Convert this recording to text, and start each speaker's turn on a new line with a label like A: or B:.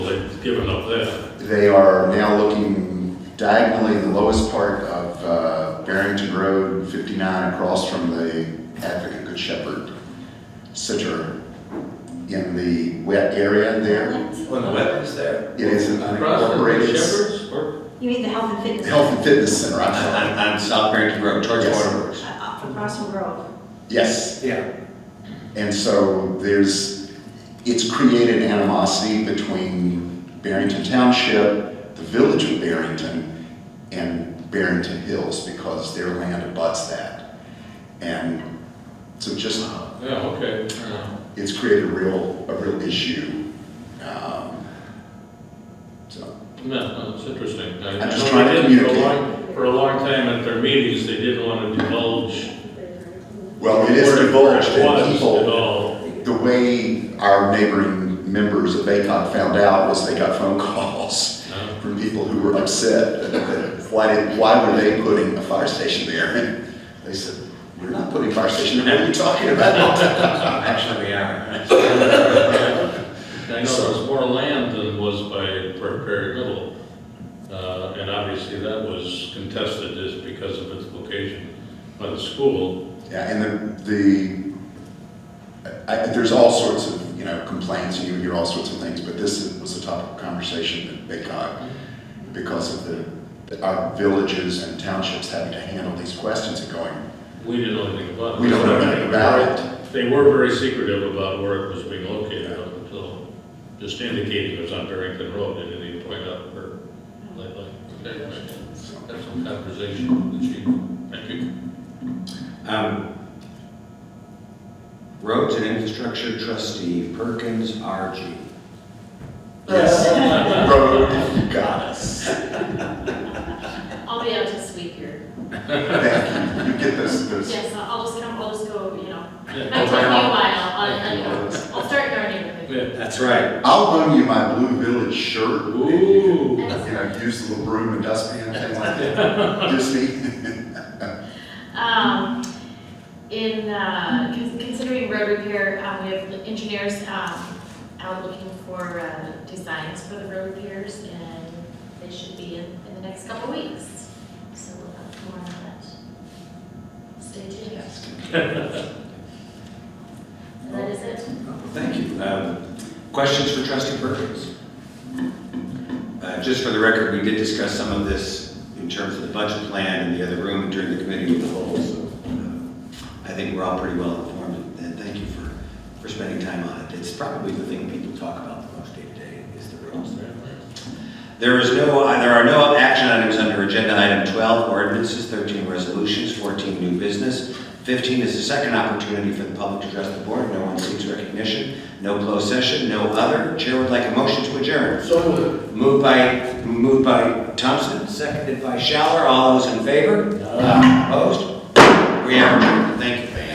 A: they've given up there.
B: They are now looking diagonally, the lowest part of uh, Barrington Road, 59, across from the Advocate Good Shepherd Center in the wet area there.
C: When the wetlands there.
B: It is an
A: Across from the
B: unincorporated
A: Shepherds, or
D: You mean the health and fitness?
B: health and fitness center, I'm sorry.
C: On, on South Barrington Road, towards
B: Yes.
C: Waterworks.
D: Uh, From Crossville Grove.
B: Yes,
C: Yeah.
B: and so there's, it's created animosity between Barrington Township, the village of Barrington, and Barrington Hills because their land abuts that. And so just,
A: yeah, okay.
B: it's created a real, a real issue. Um, So,
A: No, it's interesting. I-
B: I'm
A: I
B: just
A: know
B: trying
A: they
B: to
A: did for a
B: communicate.
A: long- For a long time at their meetings, they didn't want to divulge.
B: well, it is
A: where-
B: divulged
A: where it
B: and
A: was At
B: people,
A: all.
B: the way our neighboring members of ACOG found out was they got phone calls.
A: no.
B: from people who were upset. that Why did, why were they putting a fire station there? And they said, we're not putting a fire station there, what are you talking about?
C: Uh, Actually, we are.
A: I know there's more land than was by Prairie Middle. Uh, And obviously that was contested just because of its location by the school.
B: Yeah, and the, the, I, I- there's all sorts of, you know, complaints, and you hear all sorts of things, but this was a topic of conversation at BayCog because of the, our villages and townships having to handle these questions and going,
A: We didn't know anything about it.
B: we don't know anything about it.
A: They were very secretive about where it was being located up until just indicating it was on Barrington Road. They didn't even point out where, like, like, okay, right. have some conversation with the chief. Thank you.
C: Um, Roads and Infrastructure Trustee Perkins RG.
B: Yes, road, you got us.
E: I'll be out this week here.
B: Thank you, you get those, those.
E: Yes, I'll I'll just come, I'll just go, you know,
A: Yeah.
E: I took me a while, I'll,
B: Thank you,
E: I'll-
B: Lois.
E: I'll start gardening with it.
A: Yeah.
C: That's right.
B: I'll loan you my Blue Village shirt. and You
A: Ooh.
B: can, you know, use the little broom and dustpan and things like that. Just me.
E: Um, in, uh, con- considering road repair, um, we have the engineers, um, out looking for, uh, designs for the road repairs and they should be in, in the next couple weeks. So we'll have more on that. Stay tuned. And that is it.
C: Thank you. Um, Questions for trustee Perkins? Uh, Just for the record, we did discuss some of this in terms of the budget plan in the other room during the committee of the whole, so uh, I think we're all pretty well informed, and thank you for, for spending time on it. It's probably the thing people talk about the most day to day, is the roads. There is no, uh, there are no action items under agenda item 12, ordinances, 13 resolutions, 14 new business. 15 is the second opportunity for the public to address the board. No one seeks recognition, no closed session, no other. Chair would like a motion to adjourn. So moved. Moved by, moved by Thompson, seconded by Schaller. All those in favor? Opposed? We are adjourned. Thank you.